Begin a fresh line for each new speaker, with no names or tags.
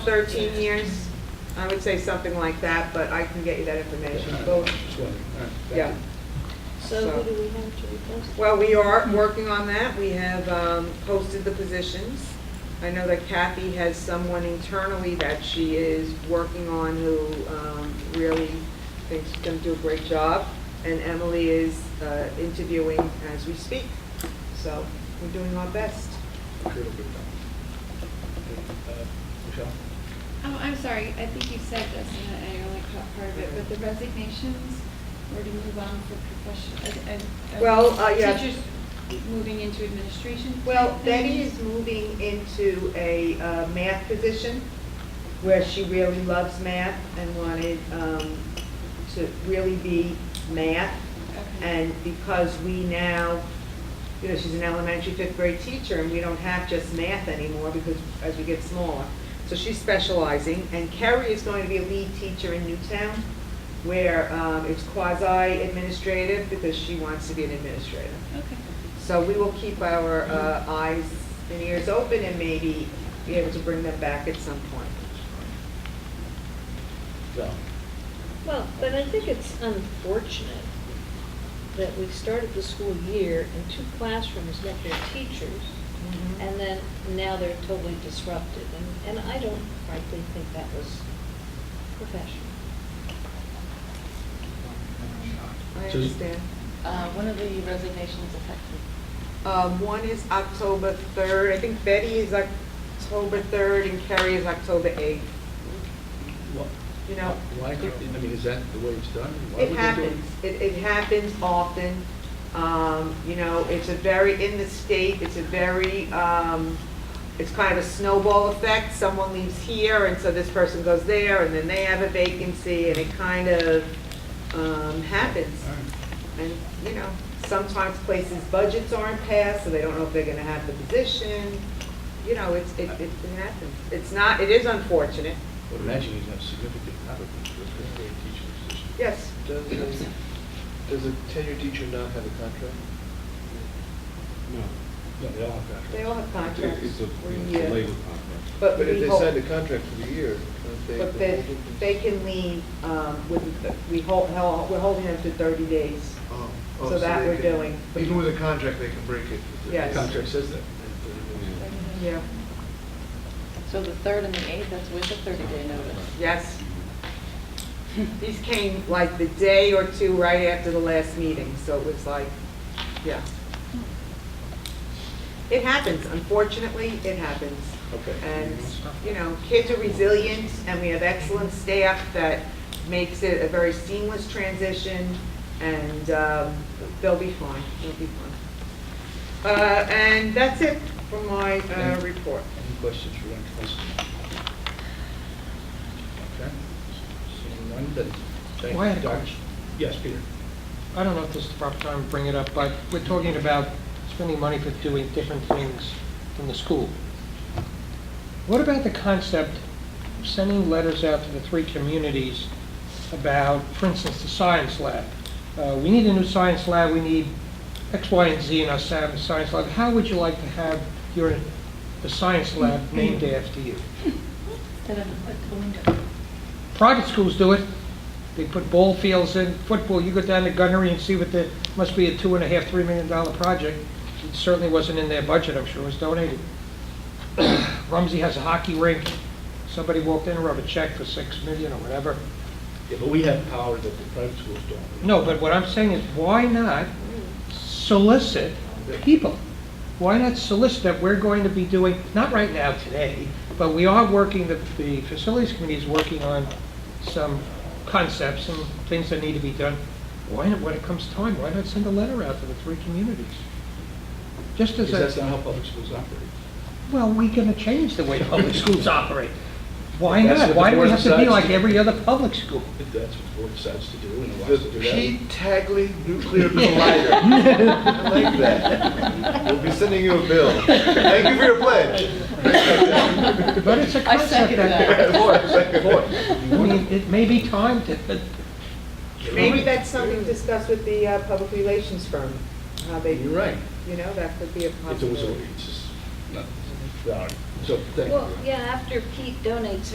13 years, I would say something like that, but I can get you that information. Well,
Just wondering. All right, thank
Yeah,
So who do we have to replace?
well, we are working on that. We have um, posted the positions. I know that Kathy has someone internally that she is working on who um, really thinks she's going to do a great job, and Emily is uh, interviewing as we speak. So we're doing our best.
you. Okay, it'll be done. Okay, uh, Michelle?
Oh, I'm sorry, I think you said this, and I I only caught part of it, but the resignations were to move on for profession, and, and.
Well, uh, yeah.
Teachers moving into administration.
Well,
type
Betty
things.
is moving into a uh, math position where she really loves math and wanted um, to really be math.
Okay.
And because we now, you know, she's an elementary fifth grade teacher and we don't have just math anymore because as we get smaller. So she's specializing and Kerry is going to be a lead teacher in Newtown where um, it's quasi administrative because she wants to be an administrator.
Okay,
So we will keep our uh, eyes and ears open and maybe be able to bring them back at some point.
Val?
Well, but I think it's unfortunate that we started the school year and two classrooms met their teachers,
Mm-hmm.
and then now they're totally disrupted, and, and I don't frankly think that was professional.
I
So-
understand.
Uh, When are the resignations effective?
Um, One is October 3rd, I think Betty is October 3rd and Carrie is October 8th.
Wha-
You know,
Why, could- I mean, is that the way it's done? Why
it
would they do
happens, it, it happens often. Um, You know, it's a very, in the state, it's a very, um, it's kind of a snowball effect. Someone leaves here, and so this person goes there, and then they have a vacancy, and it kind of um, happens.
All right.
And, you know, sometimes places' budgets aren't passed, so they don't know if they're gonna have the position. You know, it's, it, it it happens. It's not, it is unfortunate,
I would imagine you'd have significant applicants for a fifth grade teaching position.
yes.
Does a, does a tenured teacher not have a contract?
No,
No, they all have contracts.
They all have
It-
contracts.
it's a,
We're
it's
here.
a labor contract.
But
But if
we
they
hope-
signed a contract for the year, can't they?
But they, they can leave, um, with, we hold, hell, we're holding them to thirty days.
Oh, oh,
So that
they
we're
can-
doing.
Even with a contract, they can break it.
Yes.
The contract says that.
Yeah.
So the 3rd and the 8th, that's with a 30-day notice.
Yes. These came like the day or two right after the last meeting, so it was like, yeah. It happens, unfortunately, it happens.
Okay.
And, you know, kids are resilient, and we have excellent staff that makes it a very seamless transition, and um, they'll be fine, they'll be fine. Uh, And that's it for my uh, report.
Any questions for Ryan Council? Okay. Seeing none, then, thank you.
Well, I had a
Doc.
question.
Yes, Peter.
I don't know if this is the proper time to bring it up, but we're talking about spending money for doing different things from the school. What about the concept of sending letters out to the three communities about, for instance, the science lab? Uh, We need a new science lab, we need X, Y, and Z in our sa- science lab. How would you like to have your, the science lab named after you?
Instead of a window.
Private schools do it. They put ball fields in, football, you go down to Gunnery and see what the, must be a two and a half, three million dollar project. It certainly wasn't in their budget, I'm sure it was donated. Rumsey has a hockey rink. Somebody walked in and wrote a check for six million or whatever.
Yeah, but we have power that the private schools don't.
No, but what I'm saying is, why not solicit people? Why not solicit that we're going to be doing, not right now today, but we are working, the, the facilities committee is working on some concepts and things that need to be done. Why not, when it comes time, why not send a letter out to the three communities? Just as
Because that's
a,
not how public schools operate.
well, we're gonna change the way public schools operate. Why
That's what
not?
the
Why do
board
we have to be
decides
like
to-
every other public school?
If that's what the board decides to do and allows
The
us to do that.
Pete Tagley Nuclear Collider. I like that. We'll be sending you a bill. Thank you for your pledge.
But it's a
I
concept
second that.
that,
More, second more.
I mean, it may be time to,
Maybe that's something to discuss with the uh, public relations firm, how they,
You're
you
right.
know, that could be a
If there was a,
possibility.
it's just, no. All right. So, thank you.
Well, yeah, after Pete donates